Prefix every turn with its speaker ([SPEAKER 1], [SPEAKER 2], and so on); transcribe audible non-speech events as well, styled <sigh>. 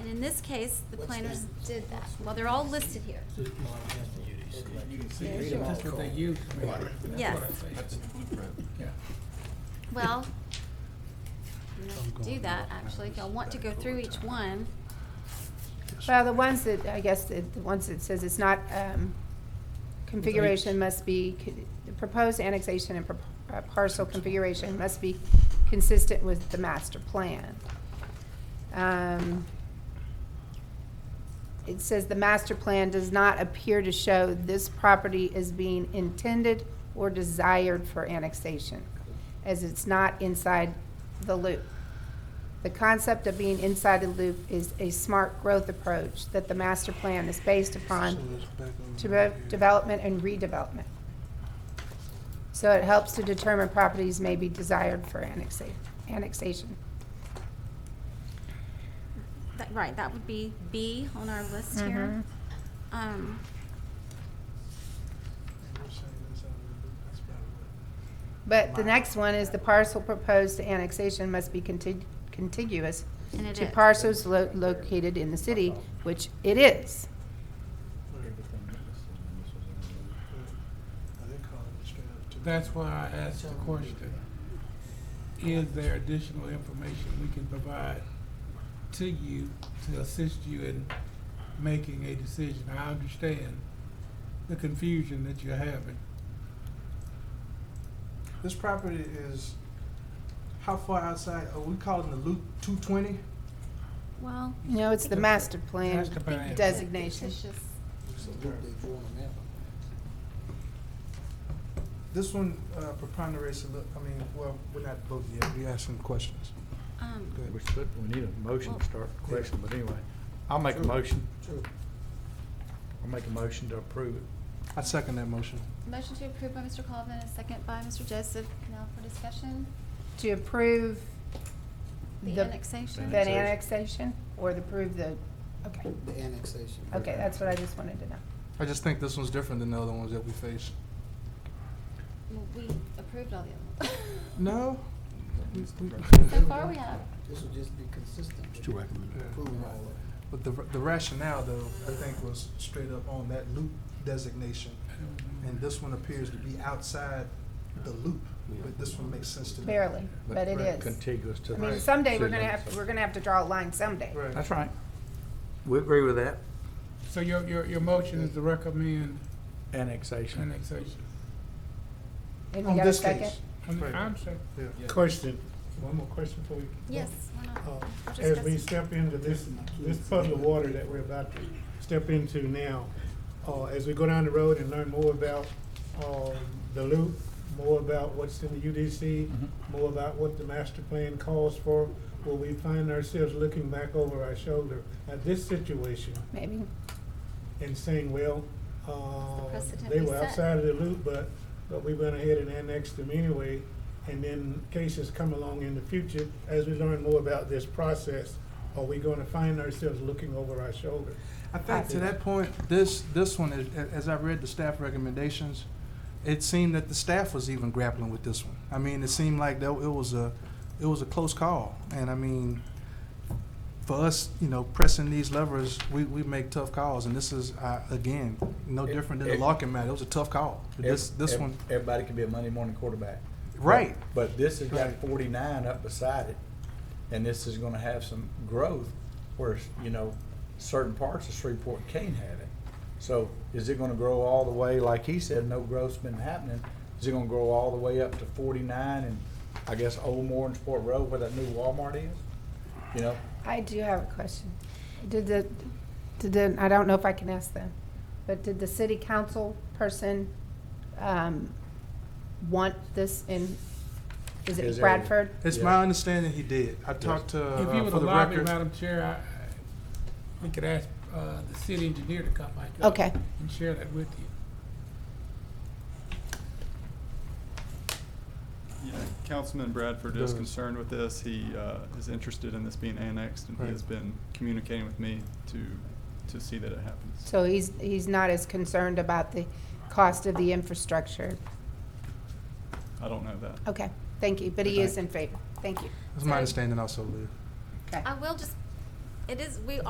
[SPEAKER 1] And in this case, the
[SPEAKER 2] What's
[SPEAKER 1] planners
[SPEAKER 2] that?
[SPEAKER 1] did that. Well, they're all listed here.
[SPEAKER 2] See, read 'em
[SPEAKER 1] sure.
[SPEAKER 2] all,
[SPEAKER 3] That's what they
[SPEAKER 2] Cole.
[SPEAKER 3] use.
[SPEAKER 1] Yes.
[SPEAKER 4] That's its blueprint.
[SPEAKER 3] Yeah.
[SPEAKER 1] Well, I'm gonna have to do that, actually. If y'all want to go through each one,
[SPEAKER 5] Well, the ones that, I guess, the the ones that says it's not, um, configuration must be, co- the proposed annexation and pro- uh, parcel configuration must be consistent with the master plan. Um, It says the master plan does not appear to show this property is being intended or desired for annexation, as it's not inside the loop. The concept of being inside the loop is a smart growth approach that the master plan is based upon to both development and redevelopment. So it helps to determine properties may be desired for annexa- annexation.
[SPEAKER 1] that, right, that would be B on our list here.
[SPEAKER 5] Mm-hmm.
[SPEAKER 1] Um,
[SPEAKER 5] But the next one is the parcel proposed to annexation must be contig- contiguous
[SPEAKER 1] And it
[SPEAKER 5] to
[SPEAKER 1] is.
[SPEAKER 5] parcels lo- located in the city, which it is.
[SPEAKER 3] That's why I asked the question. Is there additional information we can provide to you to assist you in making a decision? I understand the confusion that you're having.
[SPEAKER 6] This property is, how far outside, are we calling the loop two twenty?
[SPEAKER 1] well.
[SPEAKER 5] No, it's the master plan
[SPEAKER 3] Master plan.
[SPEAKER 5] designation.
[SPEAKER 1] fictitious.
[SPEAKER 2] So what they doing on that one?
[SPEAKER 6] This one uh, preponderates a little, I mean, well, we're not voting yet, we asking questions.
[SPEAKER 1] Um,
[SPEAKER 6] Go ahead.
[SPEAKER 7] We should, we need a motion
[SPEAKER 1] Well-
[SPEAKER 7] to start the question, but anyway, I'll make a motion,
[SPEAKER 2] True.
[SPEAKER 7] I'll make a motion to approve it.
[SPEAKER 6] I second that motion.
[SPEAKER 1] Motion to approve by Mr. Colvin, a second by Mr. Joseph. Now for discussion,
[SPEAKER 5] to approve
[SPEAKER 1] the
[SPEAKER 5] The-
[SPEAKER 1] annexation.
[SPEAKER 5] that annexation or to approve the, okay,
[SPEAKER 2] The annexation.
[SPEAKER 5] okay, that's what I just wanted to know.
[SPEAKER 6] I just think this one's different than the other ones that we faced.
[SPEAKER 1] Well, We approved all the other ones.
[SPEAKER 8] <laughs>
[SPEAKER 6] No?
[SPEAKER 1] So far, we have.
[SPEAKER 2] This would just be consistent.
[SPEAKER 4] It's two recommend.
[SPEAKER 2] Approving all of it.
[SPEAKER 6] But the the rationale, though, I think was straight up on that loop designation. And this one appears to be outside the loop, but this one makes sense to me.
[SPEAKER 5] Barely, but it is.
[SPEAKER 7] Contiguous to
[SPEAKER 5] I
[SPEAKER 7] the.
[SPEAKER 5] mean, someday we're
[SPEAKER 7] city
[SPEAKER 5] gonna
[SPEAKER 7] limits.
[SPEAKER 5] have, we're gonna have to draw a line someday.
[SPEAKER 6] Right.
[SPEAKER 7] That's right. We agree with that.
[SPEAKER 3] So your, your, your motion is to recommend
[SPEAKER 7] Annexation.
[SPEAKER 3] annexation.
[SPEAKER 5] And we
[SPEAKER 6] On
[SPEAKER 5] got a
[SPEAKER 6] this
[SPEAKER 5] second?
[SPEAKER 6] case.
[SPEAKER 3] I'm,
[SPEAKER 6] Right.
[SPEAKER 3] I'm sorry.
[SPEAKER 6] Yeah.
[SPEAKER 8] Question, one more question for you.
[SPEAKER 1] Yes, why not?
[SPEAKER 8] Uh,
[SPEAKER 1] We're
[SPEAKER 8] As we
[SPEAKER 1] discussing.
[SPEAKER 8] step into this, this puddle of water that we're about to step into now, uh, as we go down the road and learn more about, uh, the loop, more about what's in the UDC, more about what the master plan calls for, will we find ourselves looking back over our shoulder at this situation
[SPEAKER 5] Maybe.
[SPEAKER 8] and saying, well,
[SPEAKER 1] That's the
[SPEAKER 8] uh,
[SPEAKER 1] precedent
[SPEAKER 8] they
[SPEAKER 1] we
[SPEAKER 8] were
[SPEAKER 1] set.
[SPEAKER 8] outside of the loop, but, but we went ahead and annexed them anyway. And then cases come along in the future, as we learn more about this process, are we gonna find ourselves looking over our shoulder?
[SPEAKER 6] I think to that point, this, this one, is- a- as I read the staff recommendations, it seemed that the staff was even grappling with this one. I mean, it seemed like that it was a, it was a close call. And I mean, for us, you know, pressing these levers, we, we make tough calls. And this is, uh, again, no different than the Larkin matter. It was a tough call. This, this
[SPEAKER 7] Ev-
[SPEAKER 6] one,
[SPEAKER 7] Everybody can be a Monday morning quarterback.
[SPEAKER 6] right.
[SPEAKER 7] But this has got
[SPEAKER 6] Right.
[SPEAKER 7] forty-nine up beside it, and this is gonna have some growth, whereas, you know, certain parts of Shreveport can't have it. So is it gonna grow all the way, like he said, no growth's been happening, is it gonna grow all the way up to forty-nine and I guess Oldmore and Sport Road where that new Walmart is? You know,
[SPEAKER 5] I do have a question. Did the, did the, I don't know if I can ask them, but did the city council person, um, want this in, is
[SPEAKER 7] His
[SPEAKER 5] it
[SPEAKER 7] area.
[SPEAKER 5] Bradford?
[SPEAKER 6] It's
[SPEAKER 7] Yeah.
[SPEAKER 6] my understanding he did. I talked to,
[SPEAKER 3] If you
[SPEAKER 6] uh,
[SPEAKER 3] would
[SPEAKER 6] for the
[SPEAKER 3] allow me,
[SPEAKER 6] record.
[SPEAKER 3] Madam Chair, I, I- we could ask, uh, the city engineer to come back. up
[SPEAKER 5] Okay.
[SPEAKER 3] And share that with you.
[SPEAKER 9] Yeah, Councilman Bradford is
[SPEAKER 6] Does.
[SPEAKER 9] concerned with this. He uh, is interested in this being annexed, and he
[SPEAKER 6] Right.
[SPEAKER 9] has been communicating with me to, to see that it happens.
[SPEAKER 5] So he's, he's not as concerned about the cost of the infrastructure.
[SPEAKER 9] I don't know that.
[SPEAKER 5] Okay, thank you, but he is in favor. Thank you.
[SPEAKER 6] It's my understanding also, Liv.
[SPEAKER 5] Okay.
[SPEAKER 1] I will just, it is, we